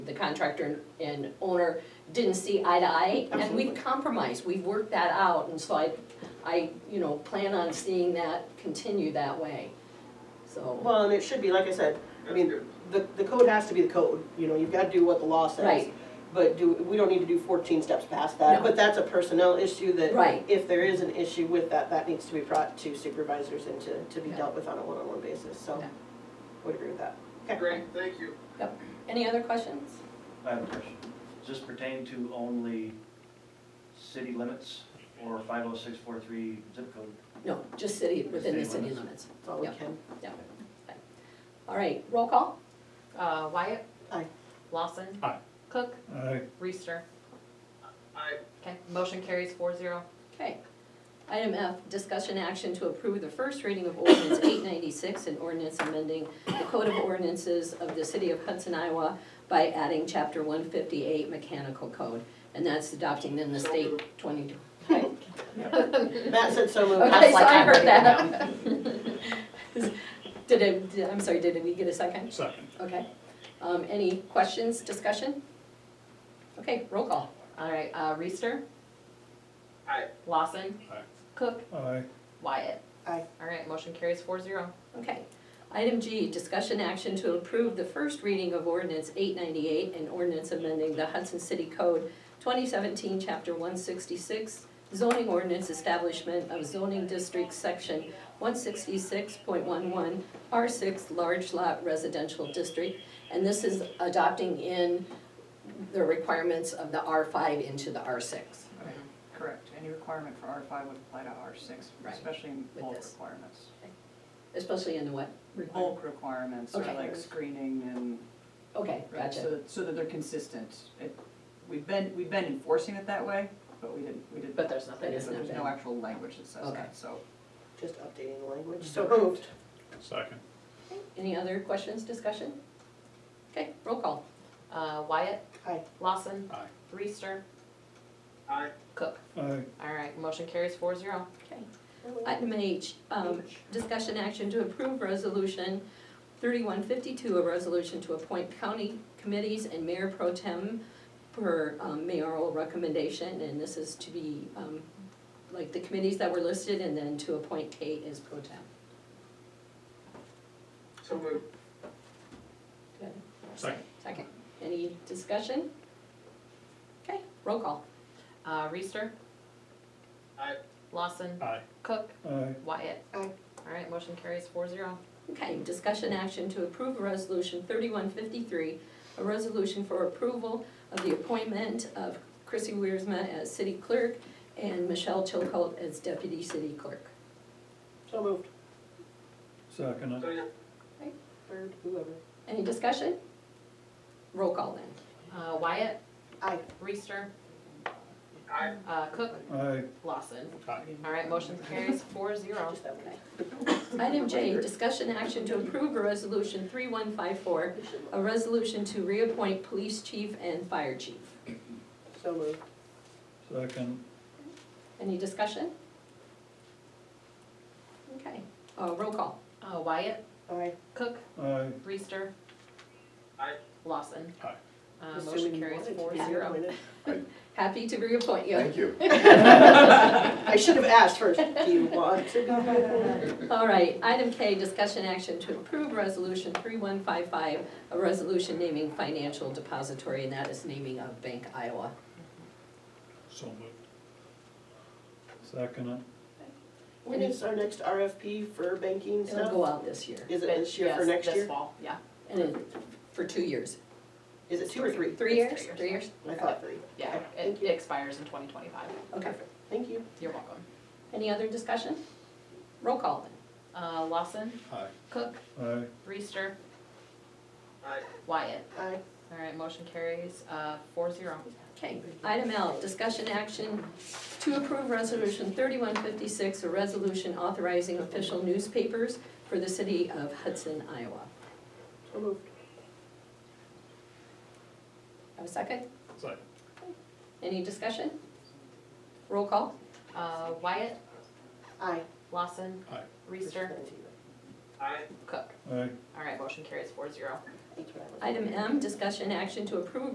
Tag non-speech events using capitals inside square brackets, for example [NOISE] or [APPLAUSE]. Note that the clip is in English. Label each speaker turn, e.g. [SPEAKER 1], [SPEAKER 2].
[SPEAKER 1] contractor and and owner didn't see eye to eye. And
[SPEAKER 2] Absolutely.
[SPEAKER 1] we've compromised, we've worked that out, and so I, I, you know, plan on seeing that continue that way, so.
[SPEAKER 2] Well, and it should be, like I said, I
[SPEAKER 3] That's
[SPEAKER 2] mean,
[SPEAKER 3] good.
[SPEAKER 2] the, the code has to be the code, you know, you've gotta do what the law says.
[SPEAKER 1] Right.
[SPEAKER 2] But do, we don't need to do fourteen steps past
[SPEAKER 1] No.
[SPEAKER 2] that, but that's a personnel issue that.
[SPEAKER 1] Right.
[SPEAKER 2] If there is an issue with that, that needs to be brought to supervisors and to, to be
[SPEAKER 1] Yeah.
[SPEAKER 2] dealt with on a one-on-one basis, so,
[SPEAKER 1] Yeah.
[SPEAKER 2] would agree with that.
[SPEAKER 3] Great, thank you.
[SPEAKER 1] Any other questions?
[SPEAKER 4] I have a question. Does this pertain to only city limits or 50643 zip code?
[SPEAKER 1] No, just city, within the city
[SPEAKER 4] City
[SPEAKER 1] limits.
[SPEAKER 2] That's all we
[SPEAKER 1] Yeah. [LAUGHS]
[SPEAKER 2] can.
[SPEAKER 1] All right, roll call?
[SPEAKER 5] Uh, Wyatt.
[SPEAKER 2] Aye.
[SPEAKER 5] Lawson.
[SPEAKER 6] Aye.
[SPEAKER 5] Cook.
[SPEAKER 6] Aye.
[SPEAKER 5] Reister.
[SPEAKER 3] I,
[SPEAKER 5] Okay, motion carries four zero.
[SPEAKER 1] Okay. Item F, discussion action to approve the first reading of ordinance eight ninety-six, an ordinance amending the code of ordinances of the city of Hudson, Iowa by adding chapter one fifty-eight mechanical code, and that's adopting then the
[SPEAKER 3] So
[SPEAKER 1] state
[SPEAKER 3] moved.
[SPEAKER 1] twenty.
[SPEAKER 2] [LAUGHS] Matt said so moved.
[SPEAKER 1] Okay, so
[SPEAKER 5] like
[SPEAKER 1] I
[SPEAKER 5] I'm
[SPEAKER 1] heard
[SPEAKER 5] reading it
[SPEAKER 1] that. Did it, did- I'm sorry, did we get a second?
[SPEAKER 6] Second.
[SPEAKER 1] Okay. Um, any questions, discussion? Okay, roll call.
[SPEAKER 5] All right, uh, Reister.
[SPEAKER 3] Aye.
[SPEAKER 5] Lawson.
[SPEAKER 6] Aye.
[SPEAKER 5] Cook.
[SPEAKER 6] Aye.
[SPEAKER 5] Wyatt.
[SPEAKER 2] Aye.
[SPEAKER 5] All right, motion carries four zero.
[SPEAKER 1] Okay. Item G, discussion action to approve the first reading of ordinance eight ninety-eight and ordinance amending the Hudson City Code twenty seventeen, chapter one sixty-six, zoning ordinance establishment of zoning district section one sixty-six point one one, R six, large lot residential district. And this is adopting in the requirements of the R five into the R six.
[SPEAKER 7] Okay, Correct, any requirement for R five would apply to R six,
[SPEAKER 1] Right,
[SPEAKER 7] especially in
[SPEAKER 1] with
[SPEAKER 7] bulk
[SPEAKER 1] this.
[SPEAKER 7] requirements.
[SPEAKER 1] Especially in the what?
[SPEAKER 7] Bulk requirements, or
[SPEAKER 1] Okay.
[SPEAKER 7] like screening and,
[SPEAKER 1] Okay,
[SPEAKER 7] right,
[SPEAKER 1] gotcha.
[SPEAKER 7] so, so that they're consistent. It- We've been, we've been enforcing it that way, but we didn't, we didn't.
[SPEAKER 5] But there's nothing.
[SPEAKER 7] but
[SPEAKER 1] it's not
[SPEAKER 7] There's
[SPEAKER 1] been-
[SPEAKER 7] no actual language that says
[SPEAKER 1] Okay.
[SPEAKER 7] that, so.
[SPEAKER 2] Just updating the language, so moved.
[SPEAKER 6] Second.
[SPEAKER 1] Any other questions, discussion? Okay, roll call.
[SPEAKER 5] Uh, Wyatt.
[SPEAKER 2] Aye.
[SPEAKER 5] Lawson.
[SPEAKER 6] Aye.
[SPEAKER 5] Reister.
[SPEAKER 3] I,
[SPEAKER 5] Cook.
[SPEAKER 6] Aye.
[SPEAKER 5] All right, motion carries four zero.
[SPEAKER 1] Okay. Item H, um, discussion action to approve resolution thirty-one fifty-two, a resolution to appoint county committees and mayor pro tem per um, mayoral recommendation, and this is to be, um, like the committees that were listed, and then to appoint Kate as pro tem.
[SPEAKER 3] so moved.
[SPEAKER 6] Second.
[SPEAKER 1] Second, any discussion? Okay, roll call.
[SPEAKER 5] Uh, Reister.
[SPEAKER 3] Aye.
[SPEAKER 5] Lawson.
[SPEAKER 6] Aye.
[SPEAKER 5] Cook.
[SPEAKER 6] Aye.
[SPEAKER 5] Wyatt.
[SPEAKER 2] Aye.
[SPEAKER 5] All right, motion carries four zero.
[SPEAKER 1] Okay, discussion action to approve resolution thirty-one fifty-three, a resolution for approval of the appointment of Chrissy Wiersma as city clerk and Michelle Chilcolt as deputy city clerk.
[SPEAKER 2] So moved.
[SPEAKER 6] Second.
[SPEAKER 3] Second.
[SPEAKER 2] Third, whoever.
[SPEAKER 1] Any discussion? Roll call then.
[SPEAKER 5] Uh, Wyatt.
[SPEAKER 2] Aye.
[SPEAKER 5] Reister.
[SPEAKER 3] I,
[SPEAKER 5] Uh, Cook.
[SPEAKER 6] Aye.
[SPEAKER 5] Lawson.
[SPEAKER 6] Aye.
[SPEAKER 5] All right, motion carries four zero.
[SPEAKER 2] Just that one.
[SPEAKER 1] Item J, discussion action to approve a resolution three-one five-four, a resolution to reappoint police chief and fire chief.
[SPEAKER 2] So moved.
[SPEAKER 6] Second.
[SPEAKER 1] Any discussion? Okay, uh, roll call.
[SPEAKER 5] Uh, Wyatt,
[SPEAKER 2] Aye.
[SPEAKER 5] Cook,
[SPEAKER 6] Aye.
[SPEAKER 5] Reister.
[SPEAKER 3] Aye.
[SPEAKER 5] Lawson.
[SPEAKER 6] Aye.
[SPEAKER 5] Uh,
[SPEAKER 2] Assuming
[SPEAKER 5] motion
[SPEAKER 2] you
[SPEAKER 5] carries
[SPEAKER 2] wanted to
[SPEAKER 5] four
[SPEAKER 2] be
[SPEAKER 5] zero.
[SPEAKER 2] appointed.
[SPEAKER 1] Happy to reappoint you.
[SPEAKER 8] Thank you.
[SPEAKER 5] [LAUGHS]
[SPEAKER 2] I should have asked first, do you want to go by that?
[SPEAKER 1] All right, item K, discussion action to approve resolution three one five five, a resolution naming financial depository, and that is naming of Bank Iowa.
[SPEAKER 6] So moved. Second.
[SPEAKER 2] When is our next RFP for banking
[SPEAKER 1] It'll go
[SPEAKER 2] stuff?
[SPEAKER 1] out this year,
[SPEAKER 2] Is it
[SPEAKER 5] But
[SPEAKER 2] this year for
[SPEAKER 5] yes,
[SPEAKER 2] next
[SPEAKER 5] this
[SPEAKER 2] year?
[SPEAKER 5] fall, yeah.
[SPEAKER 1] and it, for two years.
[SPEAKER 2] Is it two or three?
[SPEAKER 1] Three years,
[SPEAKER 5] It's three
[SPEAKER 1] three years?
[SPEAKER 2] I thought three.
[SPEAKER 5] Yeah,
[SPEAKER 2] Okay,
[SPEAKER 5] it
[SPEAKER 2] Thank
[SPEAKER 5] it
[SPEAKER 2] you.
[SPEAKER 5] expires in twenty twenty-five.
[SPEAKER 1] Okay.
[SPEAKER 2] Thank you.
[SPEAKER 5] You're welcome.
[SPEAKER 1] Any other discussion? Roll call then.
[SPEAKER 5] Uh, Lawson,
[SPEAKER 6] Aye.
[SPEAKER 5] Cook,
[SPEAKER 6] Aye.
[SPEAKER 5] Reister,
[SPEAKER 3] I,
[SPEAKER 5] Wyatt.
[SPEAKER 2] Aye.
[SPEAKER 5] All right, motion carries, uh, four zero.
[SPEAKER 1] Okay, item L, discussion action to approve resolution thirty-one fifty-six, a resolution authorizing official newspapers for the city of Hudson, Iowa.
[SPEAKER 2] So moved.
[SPEAKER 1] Have a second?
[SPEAKER 6] Second.
[SPEAKER 1] Any discussion? Roll call?
[SPEAKER 5] Uh, Wyatt,
[SPEAKER 2] Aye.
[SPEAKER 5] Lawson,
[SPEAKER 6] Aye.
[SPEAKER 5] Reister,
[SPEAKER 3] I,
[SPEAKER 5] Cook.
[SPEAKER 6] Aye.
[SPEAKER 5] All right, motion carries four zero.
[SPEAKER 2] That's what I was-
[SPEAKER 1] Item M, discussion action to approve